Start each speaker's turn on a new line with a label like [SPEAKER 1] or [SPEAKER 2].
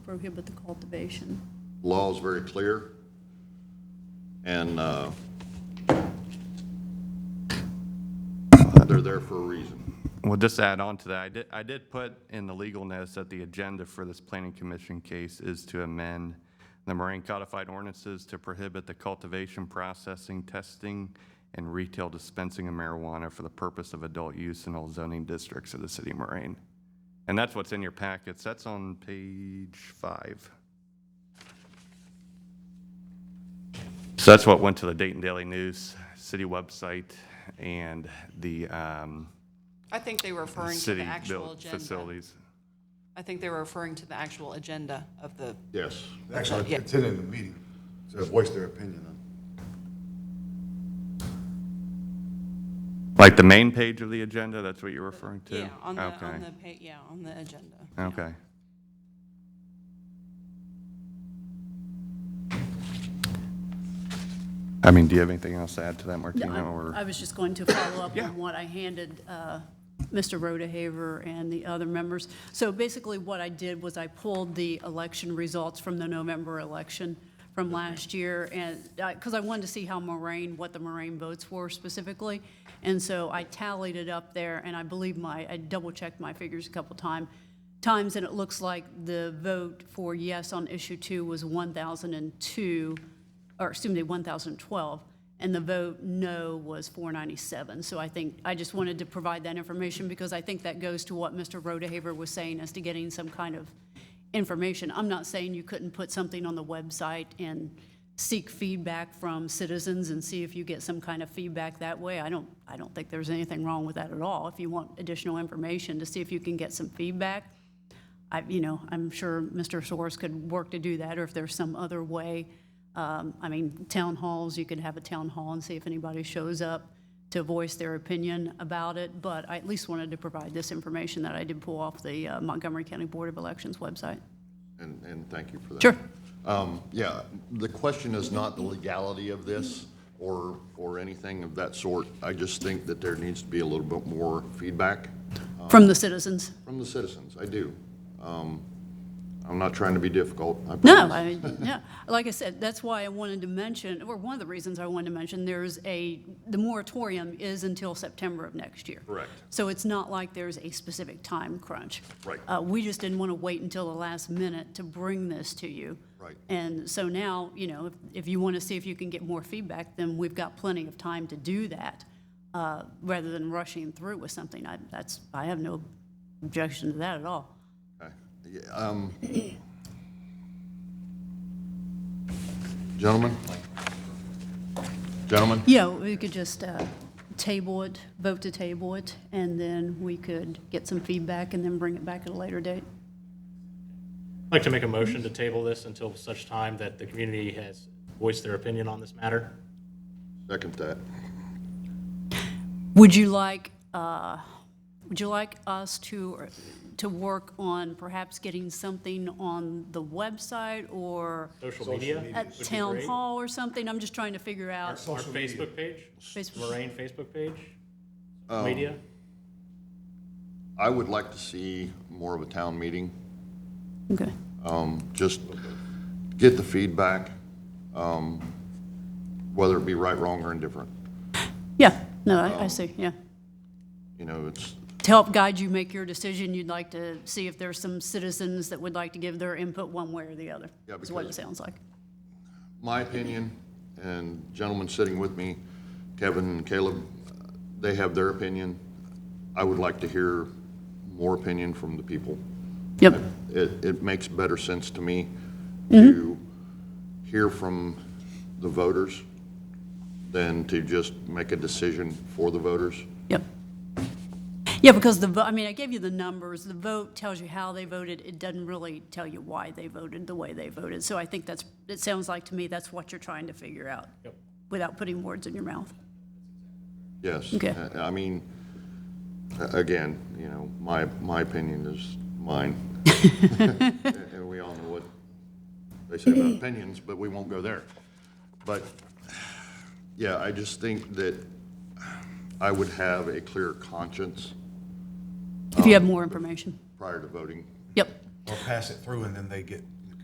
[SPEAKER 1] prohibit the cultivation.
[SPEAKER 2] Law is very clear. And uh, they're there for a reason.
[SPEAKER 3] Well, just to add on to that, I did, I did put in the legal notice that the agenda for this planning commission case is to amend the Moraine codified ordinances to prohibit the cultivation, processing, testing, and retail dispensing of marijuana for the purpose of adult use in all zoning districts of the city of Moraine. And that's what's in your packets. That's on page five. So that's what went to the Dayton Daily News, city website, and the, um,
[SPEAKER 4] I think they were referring to the
[SPEAKER 3] city
[SPEAKER 4] actual
[SPEAKER 3] built
[SPEAKER 4] agenda.
[SPEAKER 3] facilities.
[SPEAKER 4] I think they were referring to the actual agenda of the,
[SPEAKER 2] Yes.
[SPEAKER 5] Actually,
[SPEAKER 4] Yeah.
[SPEAKER 5] attending the meeting to voice their opinion on.
[SPEAKER 3] Like the main page of the agenda, that's what you're referring to?
[SPEAKER 4] yeah, on the,
[SPEAKER 3] Okay.
[SPEAKER 4] on the, pa- yeah, on the agenda.
[SPEAKER 3] Okay. I mean, do you have anything else to add to that, Martina, or?
[SPEAKER 1] I was just going to follow up
[SPEAKER 3] Yeah.
[SPEAKER 1] on what I handed uh, Mr. Rodehaver and the other members. So basically, what I did was I pulled the election results from the November election from last year, and, because I wanted to see how Moraine, what the Moraine votes were specifically. And so I tallied it up there, and I believe my, I double-checked my figures a couple time, times, and it looks like the vote for yes on issue two was 1,002, or excuse me, 1,012, and the vote no was 497. So I think, I just wanted to provide that information because I think that goes to what Mr. Rodehaver was saying as to getting some kind of information. I'm not saying you couldn't put something on the website and seek feedback from citizens and see if you get some kind of feedback that way. I don't, I don't think there's anything wrong with that at all. If you want additional information to see if you can get some feedback, I, you know, I'm sure Mr. Soares could work to do that, or if there's some other way. Um, I mean, town halls, you could have a town hall and see if anybody shows up to voice their opinion about it, but I at least wanted to provide this information that I did pull off the uh, Montgomery County Board of Elections website.
[SPEAKER 2] And, and thank you for that.
[SPEAKER 1] Sure.
[SPEAKER 2] Um, Yeah, the question is not the legality of this or, or anything of that sort. I just think that there needs to be a little bit more feedback
[SPEAKER 1] From the citizens.
[SPEAKER 2] from the citizens. I do. Um, I'm not trying to be difficult. I
[SPEAKER 1] No,
[SPEAKER 2] promise.
[SPEAKER 1] I mean, yeah, like I said, that's why I wanted to mention, or one of the reasons I wanted to mention, there's a, the moratorium is until September of next year.
[SPEAKER 2] Correct.
[SPEAKER 1] So it's not like there's a specific time crunch.
[SPEAKER 2] Right.
[SPEAKER 1] Uh, we just didn't want to wait until the last minute to bring this to you.
[SPEAKER 2] Right.
[SPEAKER 1] And so now, you know, if, if you want to see if you can get more feedback, then we've got plenty of time to do that, uh, rather than rushing through with something. I, that's, I have no objection to that at all.
[SPEAKER 2] Okay. Yeah, um, Gentlemen? Gentlemen?
[SPEAKER 1] Yeah, we could just uh, table it, vote to table it, and then we could get some feedback and then bring it back at a later date.
[SPEAKER 6] I'd like to make a motion to table this until such time that the community has voiced their opinion on this matter.
[SPEAKER 2] Second that.
[SPEAKER 1] Would you like, uh, would you like us to, to work on perhaps getting something on the website or
[SPEAKER 6] Social media,
[SPEAKER 1] at town hall or something? I'm just trying to figure out.
[SPEAKER 6] our Facebook page,
[SPEAKER 1] Facebook-
[SPEAKER 6] Moraine Facebook page, media.
[SPEAKER 2] I would like to see more of a town meeting,
[SPEAKER 1] Okay.
[SPEAKER 2] um, just get the feedback, um, whether it be right, wrong, or indifferent.
[SPEAKER 1] Yeah, no,
[SPEAKER 2] Um,
[SPEAKER 1] I I see, yeah.
[SPEAKER 2] You know, it's,
[SPEAKER 1] to help guide you make your decision, you'd like to see if there's some citizens that would like to give their input one way or the other,
[SPEAKER 2] Yeah,
[SPEAKER 1] is what it
[SPEAKER 2] because-
[SPEAKER 1] sounds like.
[SPEAKER 2] my opinion, and gentlemen sitting with me, Kevin and Caleb, they have their opinion. I would like to hear more opinion from the people.
[SPEAKER 1] Yep,
[SPEAKER 2] It, it makes better sense to me to hear from the voters than to just make a decision for the voters.
[SPEAKER 1] yep. Yeah, because the, vo- I mean, I gave you the numbers, the vote tells you how they voted, it doesn't really tell you why they voted the way they voted. So I think that's, it sounds like to me that's what you're trying to figure out, without putting words in your mouth.
[SPEAKER 2] Yes.
[SPEAKER 1] Okay.
[SPEAKER 2] I- I mean, a- again, you know, my, my opinion is mine. And we all know what they say about opinions, but we won't go there. But, yeah, I just think that I would have a clear conscience
[SPEAKER 1] If you have more information,
[SPEAKER 2] prior to voting.
[SPEAKER 1] yep.
[SPEAKER 5] Or pass it through and then they get